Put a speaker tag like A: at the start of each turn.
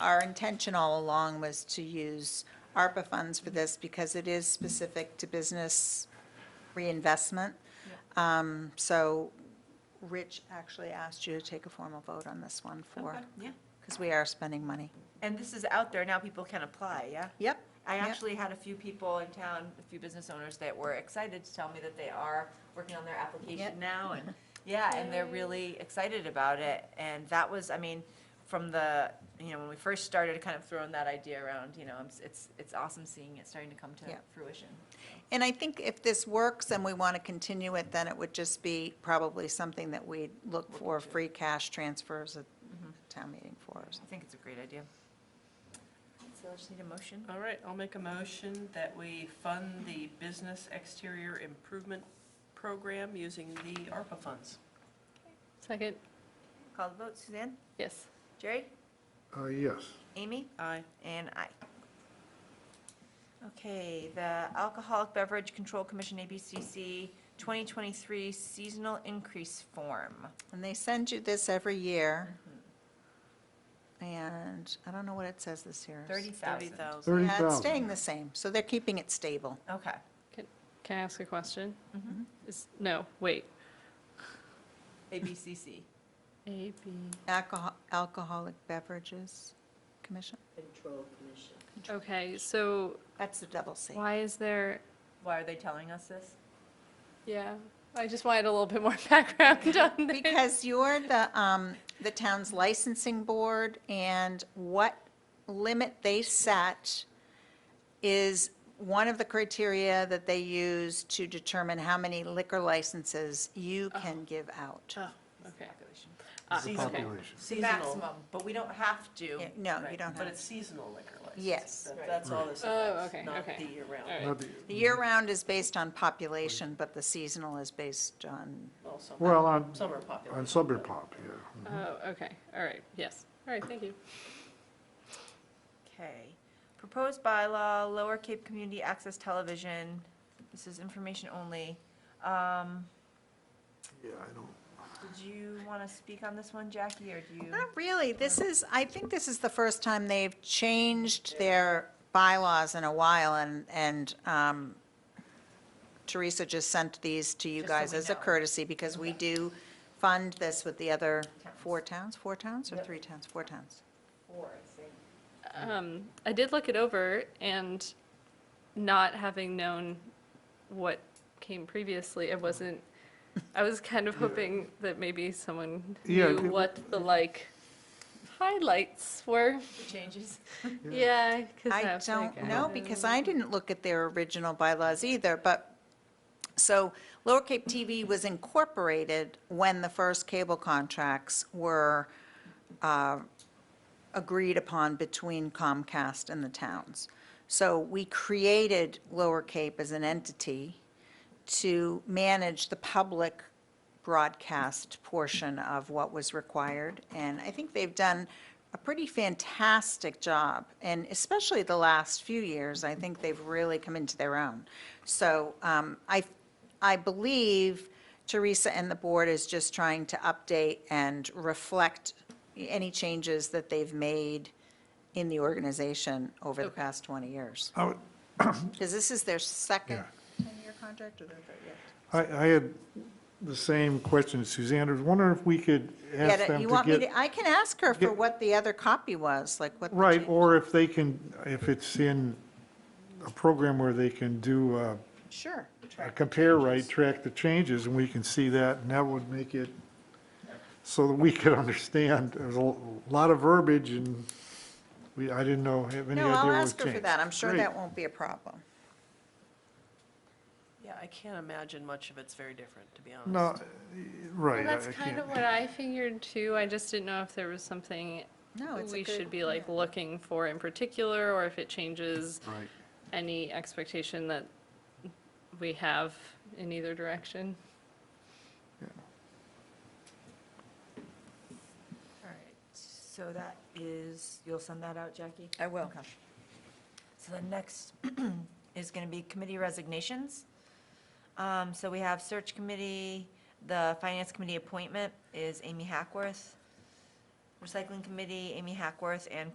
A: our intention all along was to use ARPA funds for this because it is specific to business reinvestment. Um, So Rich actually asked you to take a formal vote on this one for,
B: Yeah,
A: because we are spending money.
B: and this is out there, now people can apply, yeah?
A: Yep.
B: I
A: Yep.
B: actually had a few people in town, a few business owners that were excited to tell me that they are working on their
A: Yep.
B: application now, and, yeah, and they're really excited about it, and that was, I mean, from the, you know, when we first started kind of throwing that idea around, you know, it's- it's, it's awesome seeing it starting to come to
A: Yeah.
B: fruition.
A: And I think if this works and we want to continue it, then it would just be probably something that we'd look for free cash transfers at
B: Mm-hmm.
A: town meeting for. or
B: I
A: something.
B: think it's a great idea. So I just need a motion.
C: All right, I'll make a motion that we fund the business exterior improvement program using the ARPA funds.
D: Second,
B: Call the vote, Suzanne?
D: yes.
B: Jerry?
E: Uh, yes.
B: Amy?
C: Aye.
B: And I. Okay, the Alcoholic Beverage Control Commission, ABCC, 2023 Seasonal Increase Form.
A: And they send you this every year. And I don't know what it says this year.
B: 30,000.
E: Thirty
A: Yeah, it's
E: thousand.
A: staying the same, so they're keeping it stable.
B: Okay.
D: Can I ask a question?
B: Mhm.
D: Is, no, wait.
B: ABCC.
D: A, B,
A: Alcohol, Alcoholic Beverages Commission,
F: Control Commission.
D: okay, so
A: that's the double C.
D: why is there,
B: Why are they telling us this?
D: yeah, I just wanted a little bit more background on this.
A: Because you're the, um, the town's licensing board, and what limit they set is one of the criteria that they use to determine how many liquor licenses you can give out.
D: Oh, okay.
B: Population.
A: Uh,
D: Ah,
E: The
D: okay.
E: population.
C: Seasonal,
B: Maximum, but we don't have to.
A: Yeah, No, you
B: Oh. Right,
A: don't
C: but
A: have,
C: it's seasonal liquor license.
A: Yes.
C: That- That's all this
D: Oh,
C: affects,
D: okay,
C: not
D: okay.
C: the year-round.
D: All right.
E: Not the-
A: the year-round is based on population, but the seasonal is based on,
C: Well, some-
E: Well, on,
C: Some are
E: on
C: popular.
E: Summer Pop, yeah.
D: Oh, okay, all right, yes, all right, thank you.
B: Okay. Proposed bylaw, Lower Cape Community Access Television. This is information only. Um,
E: Yeah, I don't,
B: Did you want to speak on this one, Jackie, or do you?
A: Not really. This is, I think this is the first time they've changed their bylaws in a while, and, and um, Teresa just sent these to you
B: Just so
A: guys
B: we
A: as a
B: know.
A: courtesy, because we do fund this with the other four towns, four towns, or three towns, four towns?
D: Um, I did look it over and not having known what came previously, it wasn't, I was kind of hoping that maybe someone
E: Yeah,
D: knew
E: it-
D: what the like highlights were.
B: Changes.
D: Yeah, because
A: I don't know, because I didn't look at their original bylaws either, but, so Lower Cape TV was incorporated when the first cable contracts were uh, agreed upon between Comcast and the towns. So we created Lower Cape as an entity to manage the public broadcast portion of what was required. And I think they've done a pretty fantastic job, and especially the last few years, I think they've really come into their own. So um, I, I believe Teresa and the board is just trying to update and reflect any changes that they've made in the organization over the
D: Okay.
A: past 20 years.
E: I would-
A: Because this is their second
E: Yeah.
A: 10-year contract, or their third, yeah.
E: I, I had the same question as Suzanne, I was wondering if we could
A: Yeah,
E: ask
A: that-
E: them
A: you want me
E: to get.
A: to, I can ask her for
E: get-
A: what the other copy was, like what. the
E: Right,
A: change-
E: or if they can, if it's in a program where they can do uh,
A: Sure.
E: a compare right, track the changes, and we can see that, and that would make it so that we could understand. There's a lot of verbiage, and we, I didn't know, have any idea
A: No,
E: what
A: I'll
E: was
A: ask her for
E: changed.
A: that. I'm sure
E: Great.
A: that won't be a problem.
C: Yeah, I can't imagine much of it's very different, to be honest.
E: No, right.
D: Well, that's
E: I- I
D: kind
E: can't-
D: of what I figured too. I just didn't know if there was something
A: No, Oh, it's a
D: we
A: good-
D: should be like looking for in particular, or if it changes
E: Right.
D: any expectation that we have in either direction.
B: All right, so that is, you'll send that out, Jackie?
A: I will.
B: Okay. So the next is going to be committee resignations. Um, So we have search committee, the finance committee appointment is Amy Hackworth, recycling committee, Amy Hackworth, and